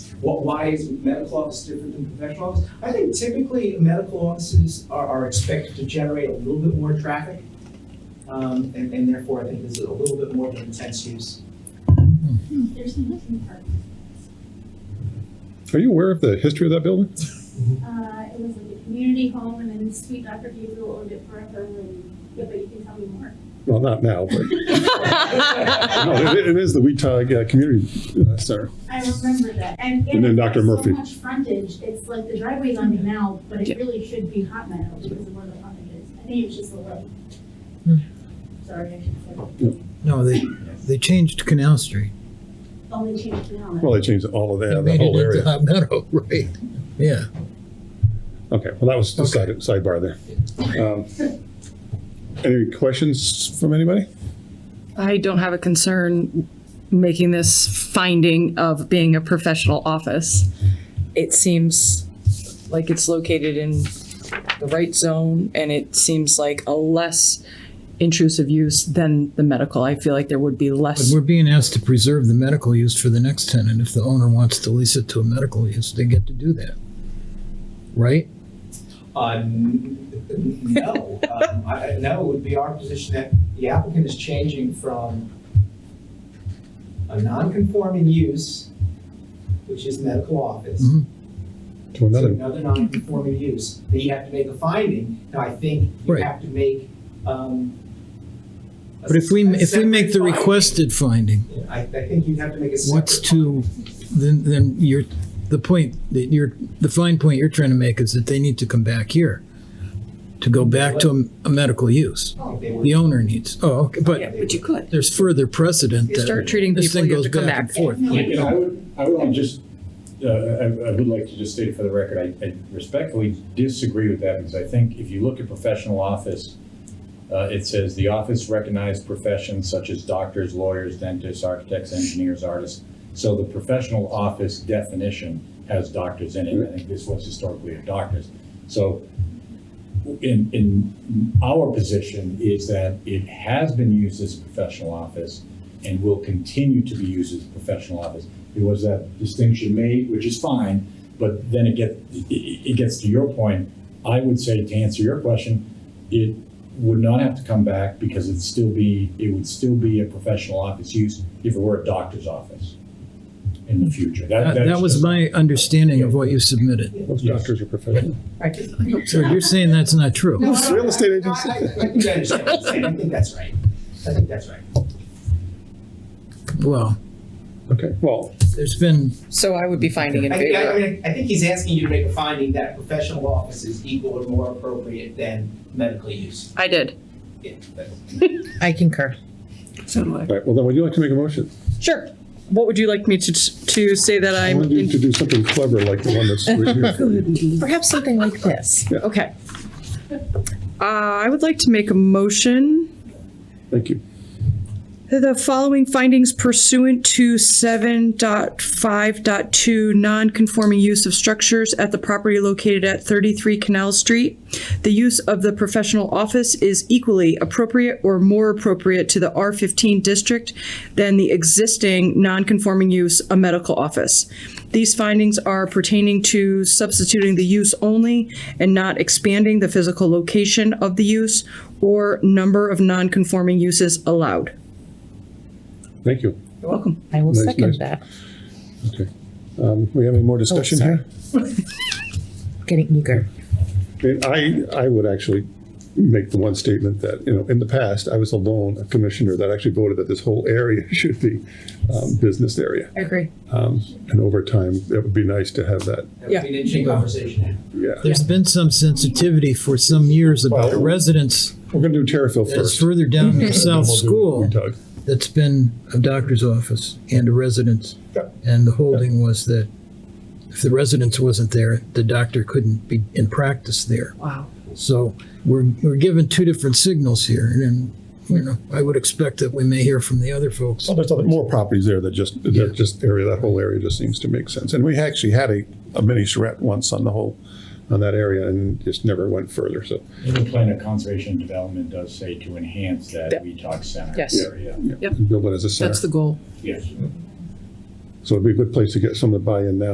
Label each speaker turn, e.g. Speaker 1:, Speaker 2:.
Speaker 1: What, why is medical office different than professional office? I think typically medical offices are, are expected to generate a little bit more traffic. Um, and, and therefore I think there's a little bit more of an intense use.
Speaker 2: There's some listening part.
Speaker 3: Are you aware of the history of that building?
Speaker 2: Uh, it was like a community home and then sweet Dr. Gabriel owned it forever and, yeah, but you can tell me more.
Speaker 3: Well, not now, but no, it, it is the Weetag uh, Community uh, Center.
Speaker 2: I remember that. And,
Speaker 3: And then
Speaker 2: it
Speaker 3: Dr.
Speaker 2: has
Speaker 3: Murphy.
Speaker 2: So much frontage, it's like the driveway's on it now, but
Speaker 4: Yeah.
Speaker 2: it really should be Hot Meadow because of where the frontage is. I think it's just a little.
Speaker 5: Hmm.
Speaker 2: Sorry, I should say.
Speaker 5: No, they, they changed Canal Street.
Speaker 2: Only changed the now.
Speaker 3: Well, they changed all of that,
Speaker 5: They
Speaker 3: the
Speaker 5: made
Speaker 3: whole
Speaker 5: it into
Speaker 3: area.
Speaker 5: Hot Meadow, right? Yeah.
Speaker 3: Okay, well, that was the
Speaker 5: Okay.
Speaker 3: side, sidebar there. Um, Any questions from anybody?
Speaker 4: I don't have a concern making this finding of being a professional office. It seems like it's located in the right zone and it seems like a less intrusive use than the medical. I feel like there would be
Speaker 5: But
Speaker 4: less.
Speaker 5: we're being asked to preserve the medical use for the next tenant. If the owner wants to lease it to a medical use, they get to do that. Right?
Speaker 1: Uh, n- n- no, um, I, I- no, it would be our position that the applicant is changing from a non-conforming use, which is medical office,
Speaker 5: Mhm.
Speaker 3: To
Speaker 1: to
Speaker 3: another,
Speaker 1: another non-conforming use, then you have to make a finding, now I think you
Speaker 5: Right.
Speaker 1: have to make, um. a
Speaker 5: But if we,
Speaker 1: s- a
Speaker 5: if we make the
Speaker 1: separate finding.
Speaker 5: requested finding,
Speaker 1: Yeah, I, I think you'd have to make a separate.
Speaker 5: what's to, then, then you're, the point that you're, the fine point you're trying to make is that they need to come back here to go back to a, a medical use.
Speaker 1: finding. They were-
Speaker 5: The owner needs, oh, okay, but
Speaker 4: Yeah, But you could.
Speaker 5: there's further precedent
Speaker 4: You
Speaker 5: that
Speaker 4: start treating
Speaker 5: this
Speaker 4: people,
Speaker 5: thing
Speaker 4: you have
Speaker 5: goes
Speaker 4: to come
Speaker 5: back and
Speaker 4: back.
Speaker 5: forth.
Speaker 6: And I would, I would want to just, uh, I, I would like to just state for the record, I, I respectfully disagree with that because I think if you look at professional office, uh, it says the office recognized professions such as doctors, lawyers, dentists, architects, engineers, artists. So the professional office definition has doctors in it. I think this was historically of doctors. So in, in our position is that it has been used as a professional office and will continue to be used as a professional office. There was that distinction made, which is fine, but then it get, it- it gets to your point. I would say, to answer your question, it would not have to come back because it'd still be, it would still be a professional office use if it were a doctor's office in the future.
Speaker 5: That, that
Speaker 6: that's
Speaker 5: was
Speaker 6: just-
Speaker 5: my understanding of what you submitted.
Speaker 3: most doctors are professional.
Speaker 5: So you're saying that's not true?
Speaker 1: No, I don't-
Speaker 3: Real estate
Speaker 1: I-
Speaker 3: agents.
Speaker 1: I, I, I think I understand what you're saying, I think that's right, I think that's right.
Speaker 5: Well,
Speaker 3: Okay, well,
Speaker 5: there's been,
Speaker 4: So I would be finding in
Speaker 1: I think, I
Speaker 4: favor.
Speaker 1: mean, I think he's asking you to make a finding that professional office is equal or more appropriate than medical use.
Speaker 4: I did.
Speaker 1: Yeah, that's-
Speaker 7: I concur.
Speaker 4: So do I.
Speaker 3: all right, well, then would you like to make a motion?
Speaker 4: Sure. What would you like me to, to say that
Speaker 3: I
Speaker 4: I'm?
Speaker 3: want you
Speaker 4: in-
Speaker 3: to do something clever like the one that's right here.
Speaker 7: Perhaps something like this.
Speaker 4: Okay. Uh, I would like to make a motion
Speaker 3: Thank you.
Speaker 4: The following findings pursuant to 7.5.2, non-conforming use of structures at the property located at 33 Canal Street. The use of the professional office is equally appropriate or more appropriate to the R15 district than the existing non-conforming use, a medical office. These findings are pertaining to substituting the use only and not expanding the physical location of the use or number of non-conforming uses allowed.
Speaker 3: Thank you.
Speaker 4: You're welcome.
Speaker 7: I will
Speaker 3: Nice, nice.
Speaker 7: second that.
Speaker 3: Okay. Um, We have any more discussion
Speaker 7: sorry.
Speaker 3: here?
Speaker 7: Getting eager.
Speaker 3: I mean, I, I would actually make the one statement that, you know, in the past, I was alone, a commissioner that actually voted that this whole area should be um, business area.
Speaker 7: I agree.
Speaker 3: Um, And over time, it would be nice to have that,
Speaker 1: That would be an interesting conversation.
Speaker 3: yeah.
Speaker 5: there's been some sensitivity for some years about
Speaker 3: Well-
Speaker 5: residents
Speaker 3: We're going to do Terrifield
Speaker 5: that's
Speaker 3: first. and
Speaker 5: further down near
Speaker 3: then
Speaker 5: South
Speaker 3: we'll do
Speaker 5: School
Speaker 3: Weetag.
Speaker 5: that's been a doctor's office and a residence.
Speaker 3: Yeah.
Speaker 5: And the holding was that if the residence wasn't there, the doctor couldn't be in practice there.
Speaker 4: Wow.
Speaker 5: So we're, we're given two different signals here and, you know, I would expect that we may hear from the other folks.
Speaker 3: Well, there's other, more properties there that just,
Speaker 5: Yeah.
Speaker 3: that just area, that whole area just seems to make sense. And we actually had a, a mini charrette once on the whole, on that area and just never went further, so.
Speaker 6: In the plan of conservation and development does say to enhance that
Speaker 4: That-
Speaker 6: VTOC center
Speaker 4: Yes.
Speaker 6: area.
Speaker 3: yeah,
Speaker 4: Yep.
Speaker 3: Build it as a
Speaker 4: That's
Speaker 3: center.
Speaker 4: the goal.
Speaker 6: Yes.
Speaker 3: So it'd be a good place to get someone to buy in now